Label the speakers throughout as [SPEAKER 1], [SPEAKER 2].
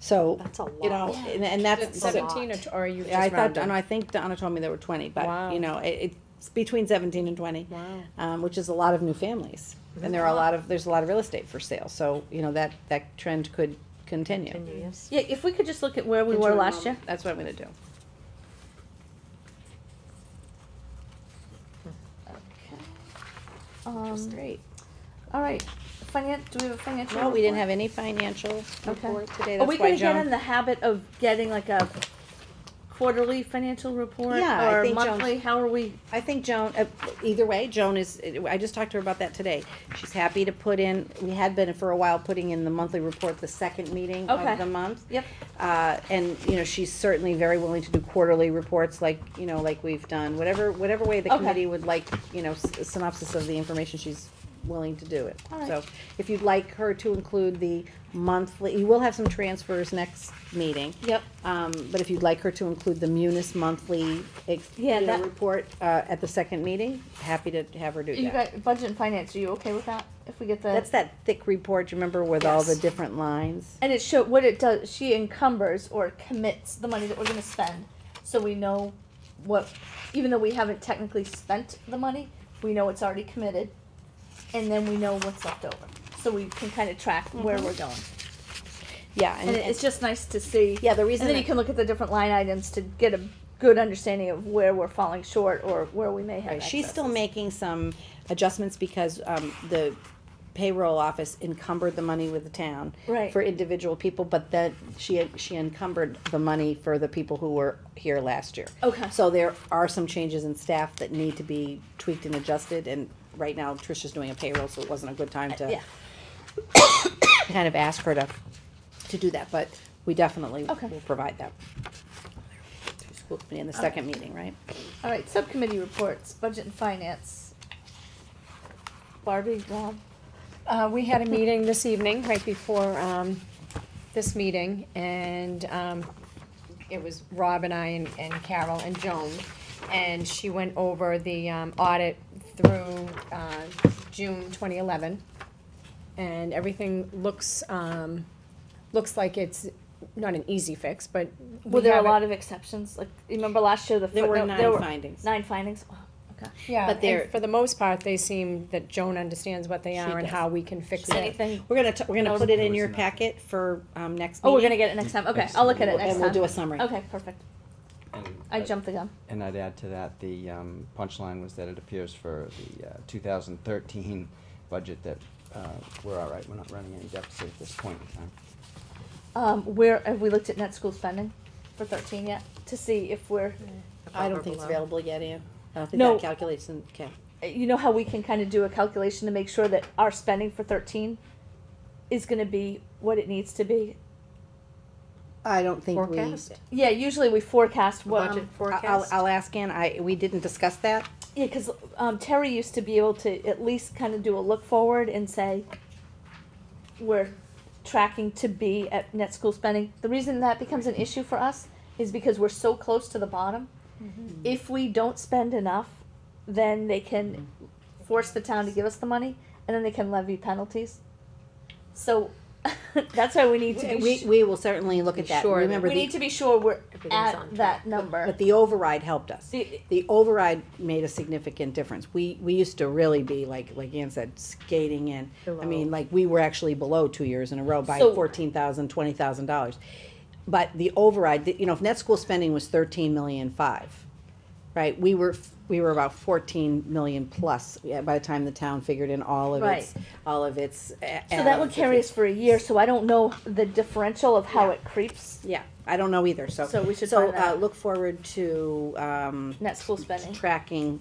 [SPEAKER 1] So,
[SPEAKER 2] That's a
[SPEAKER 1] you know,
[SPEAKER 2] lot.
[SPEAKER 1] and, and that's.
[SPEAKER 3] It's
[SPEAKER 1] so-
[SPEAKER 3] Seventeen, or t- or are you
[SPEAKER 1] I
[SPEAKER 3] just
[SPEAKER 1] thought,
[SPEAKER 3] rounding?
[SPEAKER 1] and I think Donna told me there were twenty, but,
[SPEAKER 3] Wow.
[SPEAKER 1] you know, it, it's between seventeen and twenty.
[SPEAKER 3] Wow.
[SPEAKER 1] Um, which is a lot of new families, and there are a lot of, there's a lot of real estate for sale, so, you know, that, that trend could continue.
[SPEAKER 2] Yes.
[SPEAKER 4] Yeah, if we could just look at where we
[SPEAKER 1] Into
[SPEAKER 4] were
[SPEAKER 1] a
[SPEAKER 4] last
[SPEAKER 1] moment.
[SPEAKER 4] year.
[SPEAKER 1] That's what I'm gonna do.
[SPEAKER 4] Um,
[SPEAKER 1] Great.
[SPEAKER 4] all right, finance, do we have a financial?
[SPEAKER 1] No, we didn't
[SPEAKER 4] report?
[SPEAKER 1] have any financial
[SPEAKER 4] Okay.
[SPEAKER 1] report today,
[SPEAKER 4] Are we
[SPEAKER 1] that's why
[SPEAKER 4] gonna get in
[SPEAKER 1] Joan.
[SPEAKER 4] the habit of getting like a quarterly financial report?
[SPEAKER 1] Yeah, I think
[SPEAKER 4] Or
[SPEAKER 1] Joan's-
[SPEAKER 4] monthly, how are we,
[SPEAKER 1] I think Joan, uh, either way, Joan is, I just talked to her about that today. She's happy to put in, we had been for a while putting in the monthly report, the second meeting
[SPEAKER 4] Okay.
[SPEAKER 1] of the month.
[SPEAKER 4] yep,
[SPEAKER 1] Uh, and, you know, she's certainly very willing to do quarterly reports like, you know, like we've done, whatever, whatever way the
[SPEAKER 4] Okay.
[SPEAKER 1] committee would like, you know, s- synopsis of the information, she's willing to do it.
[SPEAKER 4] All right.
[SPEAKER 1] So if you'd like her to include the monthly, you will have some transfers next meeting.
[SPEAKER 4] yep.
[SPEAKER 1] Um, but if you'd like her to include the Munis monthly, ex-
[SPEAKER 4] Yeah,
[SPEAKER 1] you know,
[SPEAKER 4] that-
[SPEAKER 1] report, uh, at the second meeting, happy to have her do
[SPEAKER 4] You
[SPEAKER 1] that.
[SPEAKER 4] got, budget and finance, are you okay with that? If we get the?
[SPEAKER 1] That's that thick report, you remember, with all the
[SPEAKER 4] Yes.
[SPEAKER 1] different lines?
[SPEAKER 4] And it show what it does. She encumbers or commits the money that we're going to spend, so we know what, even though we haven't technically spent the money, we know it's already committed, and then we know what's left over, so we can kind of track where we're going.
[SPEAKER 1] Yeah,
[SPEAKER 4] And, it- it's just nice to see.
[SPEAKER 1] Yeah, the
[SPEAKER 4] And
[SPEAKER 1] reason
[SPEAKER 4] then you
[SPEAKER 1] that,
[SPEAKER 4] can look at the different line items to get a good understanding of where we're falling short or where we may have.
[SPEAKER 1] right, she's still
[SPEAKER 4] excesses.
[SPEAKER 1] making some adjustments because, um, the payroll office encumbered the money with the town.
[SPEAKER 4] Right.
[SPEAKER 1] For individual people, but then she, she encumbered the money for the people who were here last year.
[SPEAKER 4] Okay.
[SPEAKER 1] So there are some changes in staff that need to be tweaked and adjusted, and right now Tricia's doing a payroll, so it wasn't a good time to
[SPEAKER 4] Yeah.
[SPEAKER 1] kind of ask her to, to do that, but we definitely
[SPEAKER 4] Okay.
[SPEAKER 1] will provide that. to school committee In the second meeting, right?
[SPEAKER 4] All right. Subcommittee reports, budget and finance. Barbie, Rob.
[SPEAKER 3] Uh, we had a meeting this evening, right before, um, this meeting, and, um, it was Rob and I and, and Carol and Joan, and she went over the, um, audit through, uh, June twenty eleven. And everything looks, um, looks like it's not an easy fix, but we
[SPEAKER 4] Were there a
[SPEAKER 3] have it-
[SPEAKER 4] lot of exceptions? Like, you remember last year, the
[SPEAKER 1] There were
[SPEAKER 4] footnote-
[SPEAKER 1] nine findings.
[SPEAKER 4] Nine findings. Oh, Wow. Okay.
[SPEAKER 3] Yeah,
[SPEAKER 1] But they're-
[SPEAKER 3] and for the most part, they seem that Joan understands what they
[SPEAKER 1] She
[SPEAKER 3] are and
[SPEAKER 1] does.
[SPEAKER 3] how we can fix it.
[SPEAKER 4] Anything?
[SPEAKER 1] We're gonna, t- we're gonna put it in your
[SPEAKER 5] There was
[SPEAKER 1] packet for, um, next meeting.
[SPEAKER 4] Oh, we're gonna get it next time. Okay, I'll look at it next
[SPEAKER 1] And we'll
[SPEAKER 4] time.
[SPEAKER 1] do a summary.
[SPEAKER 4] Okay, perfect.
[SPEAKER 5] And
[SPEAKER 4] I
[SPEAKER 5] I'd-
[SPEAKER 4] jumped the gun.
[SPEAKER 5] And I'd add to that, the um, punchline was that it appears for the uh, 2013 budget that uh, we're all right, we're not running any deficit at this point in time.
[SPEAKER 4] Um, where, have we looked at net school spending for thirteen yet? To see if we're,
[SPEAKER 1] I don't think it's available yet, Ann. I don't think
[SPEAKER 4] No.
[SPEAKER 1] that calculation, okay.
[SPEAKER 4] you know how we can kind of do a calculation to make sure that our spending for thirteen is gonna be what it needs to be?
[SPEAKER 1] I don't think we.
[SPEAKER 2] Forecast?
[SPEAKER 4] Yeah, usually we forecast what.
[SPEAKER 2] Budget
[SPEAKER 1] I- I'll,
[SPEAKER 2] forecast?
[SPEAKER 1] I'll ask Ann, I, we didn't discuss that.
[SPEAKER 4] Yeah, because um, Terry used to be able to at least kind of do a look forward and say, we're tracking to be at net school spending. The reason that becomes an issue for us is because we're so close to the bottom. If we don't spend enough, then they can force the town to give us the money, and then they can levy penalties. So that's why we need to be.
[SPEAKER 1] We,
[SPEAKER 4] su-
[SPEAKER 1] we will certainly look at that.
[SPEAKER 3] Sure.
[SPEAKER 1] Remember,
[SPEAKER 4] we
[SPEAKER 1] the,
[SPEAKER 4] need to be sure we're
[SPEAKER 2] Everything's on
[SPEAKER 4] at
[SPEAKER 2] track.
[SPEAKER 4] that number.
[SPEAKER 1] but uh, the override helped us.
[SPEAKER 4] The-
[SPEAKER 1] The override made a significant difference. We, we used to really be, like, like Ann said, skating in. I mean, like, we were actually below two years in a row by
[SPEAKER 4] So-
[SPEAKER 1] fourteen thousand, twenty thousand dollars. But the override, the- you know, if net school spending was thirteen million five, right, we were, f- we were about fourteen million plus yeah, by the time the town figured in all of
[SPEAKER 4] Right.
[SPEAKER 1] its, all of its. uh, So
[SPEAKER 4] So that would carry us for a year, so I don't know the differential of how it creeps
[SPEAKER 1] Yeah, I don't know either, so.
[SPEAKER 4] So we should
[SPEAKER 1] So,
[SPEAKER 4] find that
[SPEAKER 1] uh,
[SPEAKER 4] out.
[SPEAKER 1] look forward to, um,
[SPEAKER 4] net school spending.
[SPEAKER 1] tracking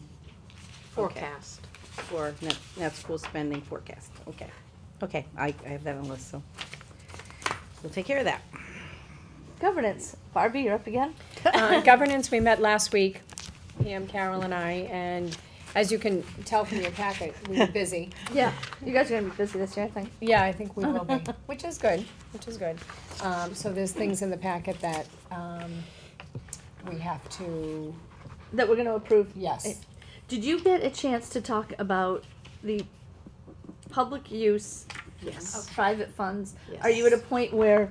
[SPEAKER 2] Forecast.
[SPEAKER 1] for net, net school spending forecast, okay. Okay, I, I have that on the list, so we'll take care of that.
[SPEAKER 4] Governance, Barbie, you're up again?
[SPEAKER 3] Uh, Governance, we met last week, Pam, Carol, and I, and as you can tell from your packet, we were busy.
[SPEAKER 4] Yeah, you guys are gonna be busy this year, I think.
[SPEAKER 3] Yeah, I think we will be, which is good, which is good. Um, So there's things in the packet that um, we have to,
[SPEAKER 4] That we're gonna approve.
[SPEAKER 3] yes.
[SPEAKER 4] Did you get a chance to talk about the public use
[SPEAKER 1] Yes.
[SPEAKER 4] of private funds? Are you at a point where